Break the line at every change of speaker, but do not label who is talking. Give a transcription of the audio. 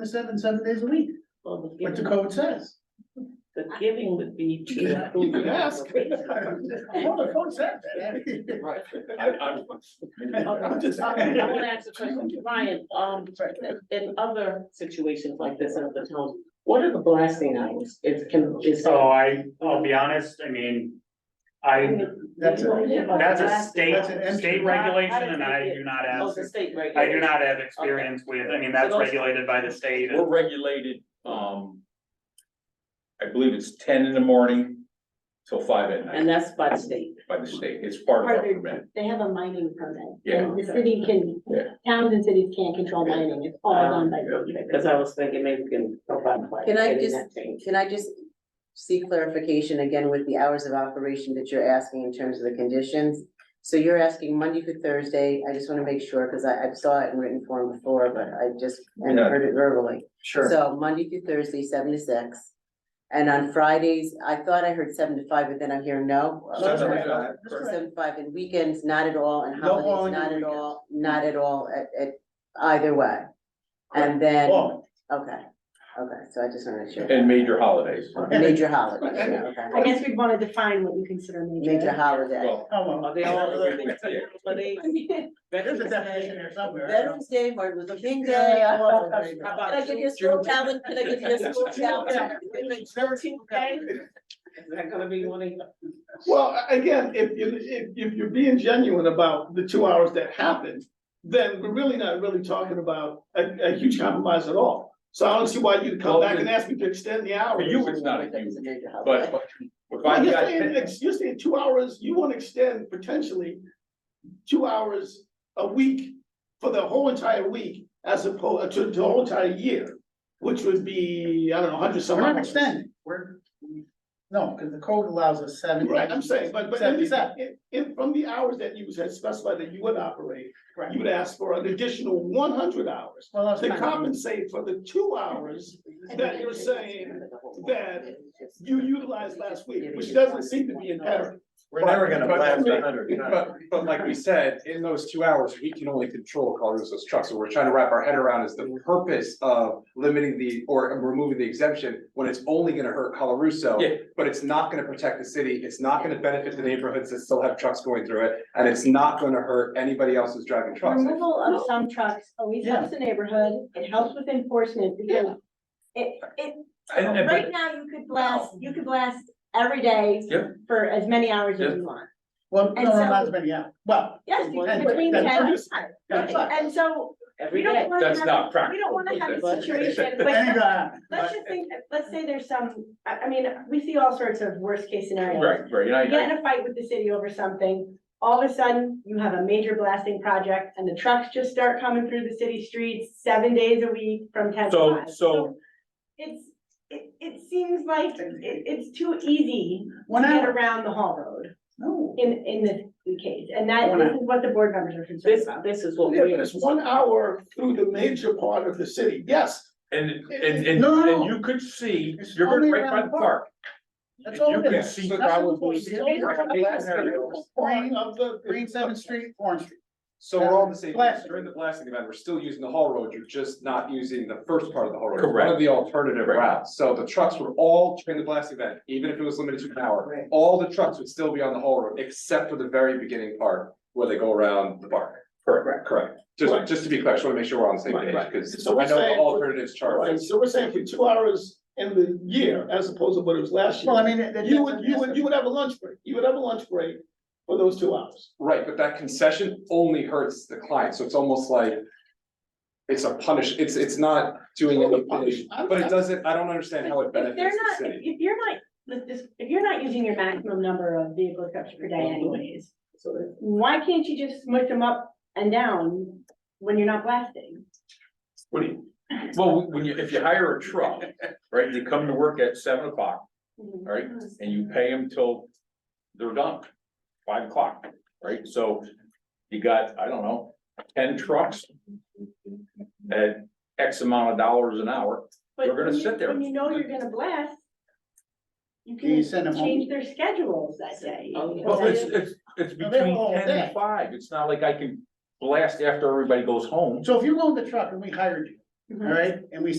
to seven, seven days a week,
Well, the
what the
giving,
code says.
the giving would be. to
Yeah.
include
You could
the
ask.
application.
Well, the code says that.
Right.
I'm just-
Um, I want to ask a question, Ryan, um, in other situations like this in other towns, what are the blasting hours? It's can, is.
So I, I'll be honest, I mean, I,
That's
that's a
That's an
state,
empty-
state regulation and I do not
Oh, the
have,
state right.
I do not have experience with, I mean, that's regulated by the state.
We're regulated, um. I believe it's ten in the morning till five at
And
night
that's by the state.
by the state, it's part of our permit.
They have a mining permit.
Yeah.
The city can,
Yeah.
towns and cities can't control mining, it's all done by.
Because I was thinking maybe we can.
Can I just-
change?
Can I just seek clarification again with the hours of operation that you're asking in terms of the conditions? So you're asking Monday through Thursday, I just want to make sure, because I, I saw it in written form before, but I just, and
Yeah.
heard it verbally.
Sure.
So Monday through Thursday, seven to six. And on Fridays, I thought I heard seven to five, but then I'm hearing no.
Seven to
Okay.
five.
Or seven to five, and weekends, not at all, and
No
holidays,
following
not at
weekends.
all, not at all, at, at either way. And then, okay,
Oh,
okay, so I just want to make sure.
And major holidays.
Major holidays, yeah,
I
okay.
guess we'd wanna define what we consider
Major holiday.
Well,
well,
Are they all other things? Are they?
there's a definition there somewhere. I don't-
Veterans Day, Martin Luther King Day.
Yeah.
Can
How about
I give you a school calendar? Can I give you a school calendar?
Is that gonna be one of?
Well, a- again, if you, if, if you're being genuine about the two hours that happened, then we're really not really talking about a, a huge compromise at all. So I don't see why you'd come
Well,
back
then-
and ask me to extend the
For
hours.
you, it's not a
It's
huge,
a major
but.
holiday.
but if
Well,
I've
you're
got
saying,
10
ex- you're saying two hours, you wanna extend potentially two hours a week for the whole entire week as opposed to the whole entire year, which would be, I don't know, hundred some
We're not
hours.
extending, we're, no, because the code allows us seven.
Right, I'm saying, but, but at
Seven,
least,
seven.
in, in, from the hours that you had specified that you would operate,
Correct.
you would ask for an additional one hundred hours
Well, that's
to
fine.
compensate for the two hours that you're saying that you utilized last week, which doesn't seem to be apparent.
We're never gonna
But-
blast
but-
a hundred.
but-
But like we said, in those two hours, we can only control Colorado's trucks, so we're trying to wrap our head around is the purpose of limiting the, or removing the exemption when it's only gonna hurt Coloruso.
Yeah.
But it's not gonna protect the city, it's not gonna benefit the neighborhoods that still have trucks going through it, and it's not gonna hurt anybody else who's driving trucks.
Removal of some trucks always helps the neighborhood, it helps with enforcement, because it, it,
and- and-
right now, you could blast, you could blast every day
Yeah.
for as many hours
Yeah.
as you want.
Well, no,
And
no,
so-
not as many hours, well,
Yes,
Well,
between- between
that's
ten and
fine. That's fine.
five. And so, we
Every
don't
day.
wanna
That's
have,
not
a- we
practical,
don't wanna have
but-
a situation,
But
like,
ain't gonna
Let's
happen.
just think, that- let's say there's some, I, I mean, we see all sorts of worst case scenarios.
Right, right, and I
You
agree.
get in a fight with the city over something, all of a sudden, you have a major blasting project and the trucks just start coming through the city streets seven days a week from ten to
So-
five.
so-
It's, it, it seems like it, it's too easy to
One
get
hour,
around the Hall Road
no.
in, in the case, and that
One
this is what the board members are concerned
This,
about.
this is what
Yeah,
we.
but it's one hour through the major part of the city, yes,
And, and, and,
No, no,
and
no.
you could see,
It's
you're
only
right by
around
the
the
park.
That's
You
all it
can
is.
see
That's
probably
the point.
the-
It's only around the last area.
Part of the.
Green Seventh Street, Orange Street.
So we're all in the same,
Blasting.
during the blasting event, we're still using the haul road, you're just not using the first part of the haul road. It's One
Correct.
of the alternative
Right.
routes, so the trucks were all during the blasting event, even if it was limited to an hour. All the trucks would still be on the haul road, except for the very beginning part where they go around the park.
Correct.
Correct. Just,
Right.
just to be clear, I just wanna make sure we're on the same
Right,
page,
right.
because I
So we're
know the
saying-
alternatives charge.
Right, so we're saying for two hours in the year as opposed to what it was last year.
Well, I mean, it- it-
You would, you would, you would have a lunch break, you would have a lunch break for those two hours.
Right, but that concession only hurts the client, so it's almost like. It's a punish, it's, it's not doing
It's a
anything,
punish. I'm-
but it doesn't, I don't understand how it
But If
benefits
they're
the
not,
city.
if if you're not, if this, if you're not using your maximum number of vehicle trips per day anyways, why can't you just smush them up and down when you're not blasting?
What do you, well, when you, if you hire a truck, right, they come to work at seven o'clock, all right, and you pay them till they're done, five o'clock, right, so you got, I don't know, ten trucks at X amount of dollars an hour,
But
We're gonna
when you-
sit there.
When you know you're gonna blast, you
Can you send
can
them home?
change their schedules that day.
Oh, yeah.
well, it's, it's, it's
Now, they're
between
all
ten
day.
and five, it's not like I can blast after everybody goes home.
So if you loan the truck and we hired you, all right, and we said